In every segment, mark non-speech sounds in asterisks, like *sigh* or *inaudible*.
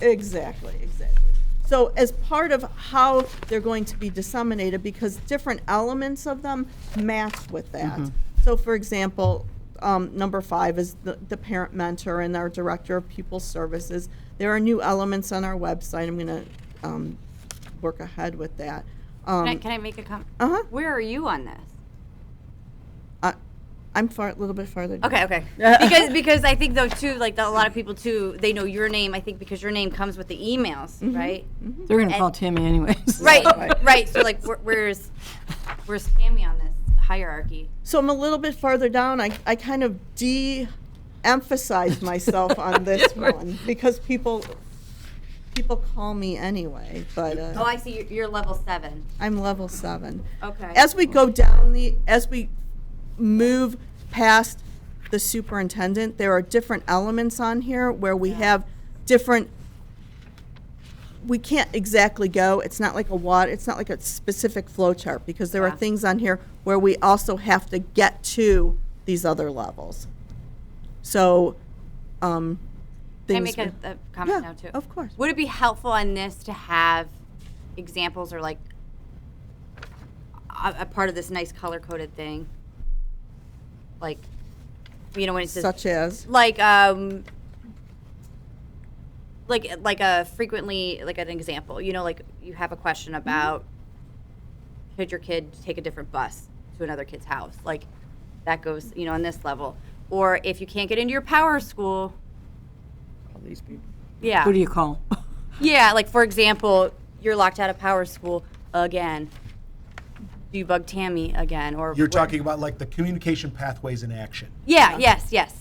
Exactly, exactly. So as part of how they're going to be disseminated, because different elements of them match with that. So for example, um, number five is the, the parent mentor and our director of pupil services. There are new elements on our website. I'm gonna, um, work ahead with that. Can I, Um, can I make a comment? uh-huh, Where are you on this? I, I'm far, a little bit farther. down. *laughs* Okay, okay. because because I think though too, like a lot of people too, they know your name. I think because your name comes with the emails, Mm-hmm. right? They're gonna call Tammy anyways. *laughs* Right, right. So like, where, where's where's Tammy on this hierarchy? So I'm a little bit farther down. I, I kind of de-emphasized myself *laughs* on this one because people people call me anyway, but Oh, uh, I see. You're, you're level seven. I'm level seven. Okay. As we go down the as we move past the superintendent, there are different elements on here where we have different we can't exactly go, it's not like a water, it's not like a specific flow chart, because there are Yeah. things on here where we also have to get to these other levels. So, um, Can I things make a, we- a comment Yeah, now too? of course. Would it be helpful on this to have examples or like a, a part of this nice color coded thing? Like, you know, when it says Such as, like um like like a frequently like an example you know like you have a question about could your kid take a different bus to another kid's house like that goes you know on this level or if you can't get into your power school yeah Who do you call? yeah like for example you're locked out of power school again do you bug tammy again or You're what- talking about like the communication pathways in action. yeah yes yes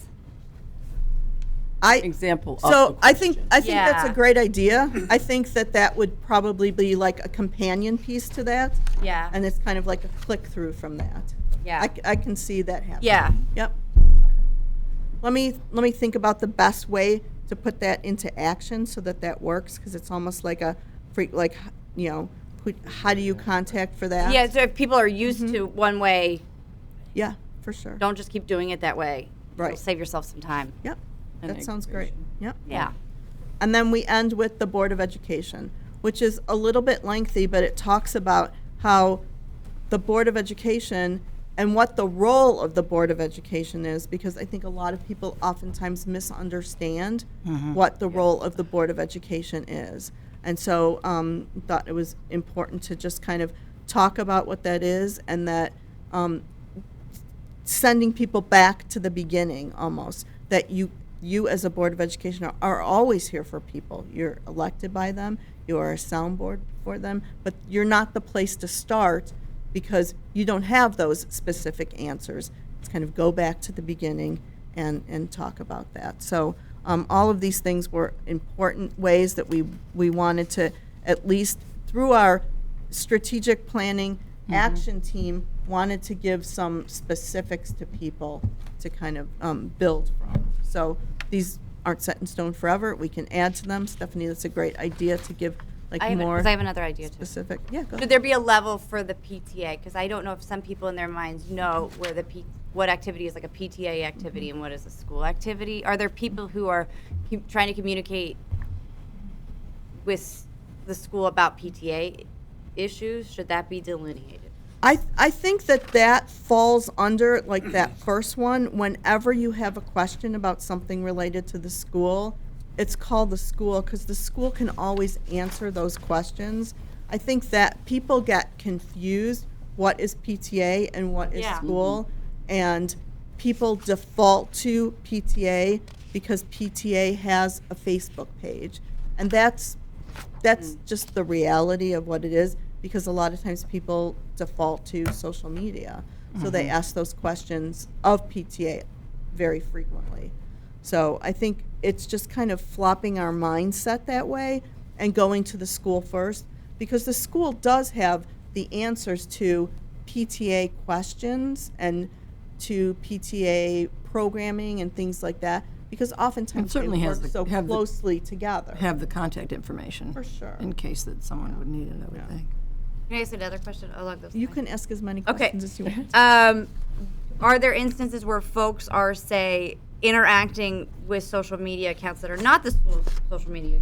I, Example of so the I think, I think that's a Yeah. great idea. I think that that would probably be like a companion piece to that, yeah and it's kind of like a click-through from that. yeah I, c- I can see that happening. yeah Yep. Let me, let me think about the best way to put that into action so that that works, because it's almost like a freak, like, you know, who, how do you contact for that? yeah so if people are used Mm-hmm. to one way Yeah, for sure. don't just keep doing it that way. Right. You'll save yourself some time. Yep, An that sounds great. aggregation. Yep. Yeah. And then we end with the Board of Education, which is a little bit lengthy, but it talks about how the Board of Education and what the role of the Board of Education is, because I think a lot of people oftentimes misunderstand what the role of the Board of Education is. And so um, thought it was important to just kind of talk about what that is and that um, sending people back to the beginning almost that you you as a board of education are, are always here for people you're elected by them you are a soundboard for them but you're not the place to start because you don't have those specific answers it's kind of go back to the beginning and and talk about that so um, all of these things were important ways that we we wanted to at least through our strategic planning Mm-hmm. action team wanted to give some specifics to people to kind of um, build from. So these aren't set in stone forever. We can add to them. Stephanie, that's a great idea to give like I have, more because I have another idea too. specific. Yeah, go. Should ahead. there be a level for the PTA? Because I don't know if some people in their minds know where the P, what activity is like a PTA Mm-hmm. activity and what is a school activity. Are there people who are cu- trying to communicate with s- the school about PTA issues? Should that be delineated? I, I think that that falls under, like that first one, whenever you have a question about something related to the school, it's called the school, because the school can always answer those questions. I think that people get confused, what is PTA and what is Yeah. school? And people default to PTA because PTA has a Facebook page. And that's that's just the reality of what it is because a lot of times people default to social media. So they ask those questions of PTA very frequently. So I think it's just kind of flopping our mindset that way and going to the school first because the school does have the answers to PTA questions and to PTA programming and things like that because oftentimes they certainly work has the- so have the- closely together. Have the contact information. For sure. In case that someone would need it, I would think. Can I ask another question along those You can ask as many Okay. questions as you want. Um, are there instances where folks are, say, interacting with social media accounts that are not the school's social media